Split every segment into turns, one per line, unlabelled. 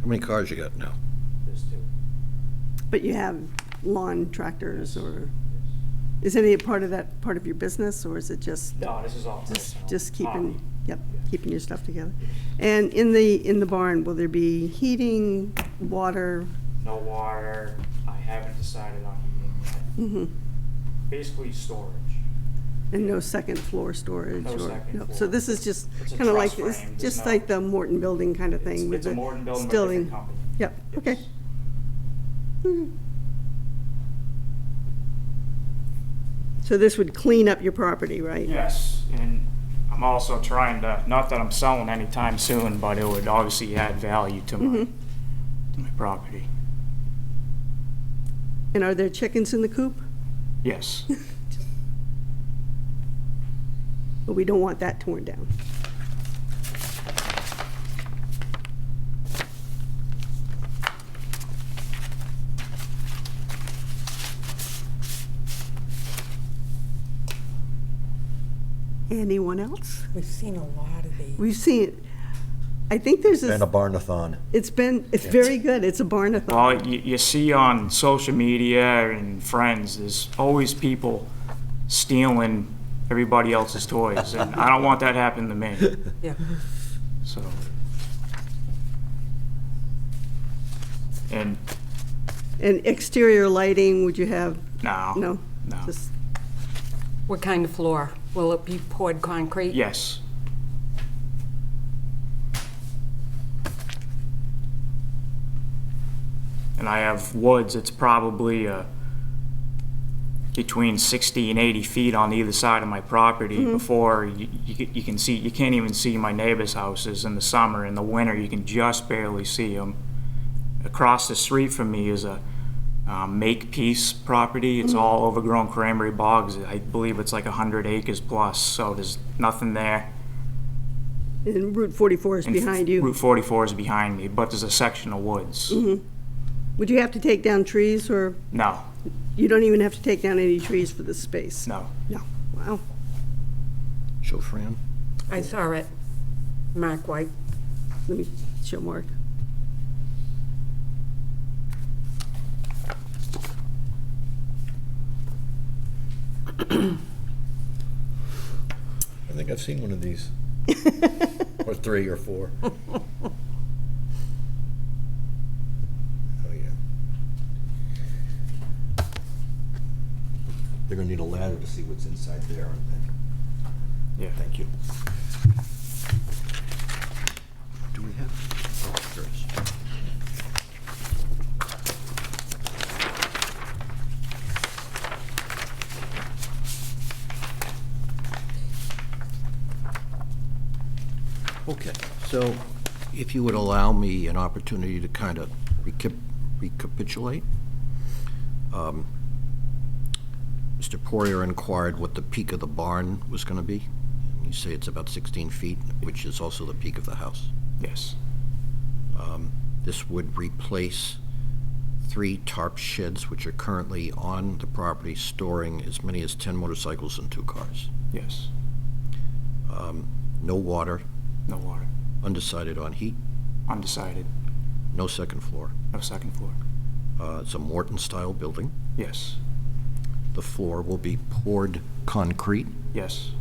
How many cars you got now?
There's two.
But you have lawn tractors or,
Yes.
is any part of that part of your business or is it just,
No, Um, this is all
just,
personal.
just keeping,
Hobby.
yep, keeping your stuff together? And in the, in the barn, will there be heating, water?
No water. I haven't decided on heating yet.
Mhm.
Basically storage.
And no second floor storage?
No
or-
second
no. So
floor.
this is just
It's a
kind of like,
truss
this-
frame, there's
just
no-
like the Morton building kind of
It's
thing? with
it's a
the
Morton building, but a
stilling.
different company.
Yep, okay.
Yes.
Mhm. So this would clean up your property, right?
Yes, and I'm also trying to, not that I'm selling anytime soon, but it would obviously add value to my,
Mhm.
to my property.
And are there chickens in the coop?
Yes.
But we don't want that torn down. Anyone else?
We've seen a lot of these.
We've seen, I think there's
And
this,
a barnathon.
it's been, it's very good, it's a barnathon.
Well, you, you see on social media and friends, there's always people stealing everybody else's toys, and I don't want that happening to me,
Yeah.
so. And,
And exterior lighting, would you have,
no.
no?
No.
Just
What kind of floor? Will it be poured concrete?
Yes, and I have woods, it's probably uh, between 60 and 80 feet on either side of my property before you- you c- you can see, you can't even see my neighbor's houses in the summer. In the winter, you can just barely see them. Across the street from me is a um, make-peace property. It's all overgrown cranberry bogs. I believe it's like 100 acres plus, so there's nothing there.
And Route 44 is
And f-
behind you. Mm-hmm.
Route 44 is behind me, but there's a section of woods.
Would you have to take down trees, or
No,
you don't even have to take down any trees for this space?
no.
No, wow.
So Fran,
I saw it. Mark White.
Let me show Mark.
I think I've seen one of these. Or three or four. Oh, yeah. They're gonna need a ladder to see what's inside there, aren't they?
Yeah.
Thank you. Do we have? oh, there is. Okay, so if you would allow me an opportunity to kind of recapitulate. um, Mr. Poirier inquired what the peak of the barn was going to be. and You say it's about 16 feet, which is also the peak of the house.
Yes,
This would replace three tarp sheds, which are currently on the property, storing as many as 10 motorcycles and two cars.
yes.
No water,
No water.
undecided on heat,
Undecided.
no second floor.
No second floor.
Uh, It's a Morton-style building.
Yes,
The floor will be poured concrete.
yes.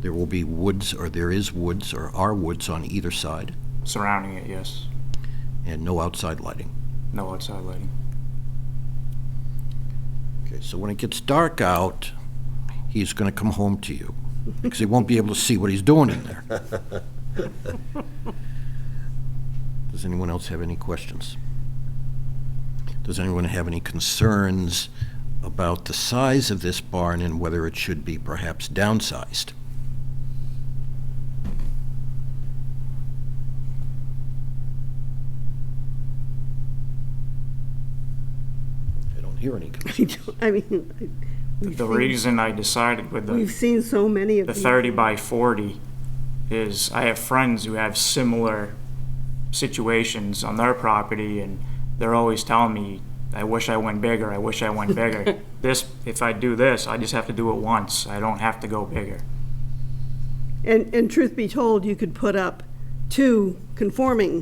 There will be woods, or there is woods, or are woods on either side,
Surrounding it, yes.
and no outside lighting.
No outside lighting.
Okay, so when it gets dark out, he's going to come home to you, because he won't be able to see what he's doing in there. Does anyone else have any questions? Does anyone have any concerns about the size of this barn and whether it should be perhaps downsized? I don't hear any concerns.
I don't- I mean, I- we've
The
seen-
reason I decided with
We've
the,
seen so many of
the
these.
30 by 40 is I have friends who have similar situations on their property, and they're always telling me, I wish I went bigger, I wish I went bigger. This, if I do this, I just have to do it once. I don't have to go bigger.
And, and truth be told, you could put up two conforming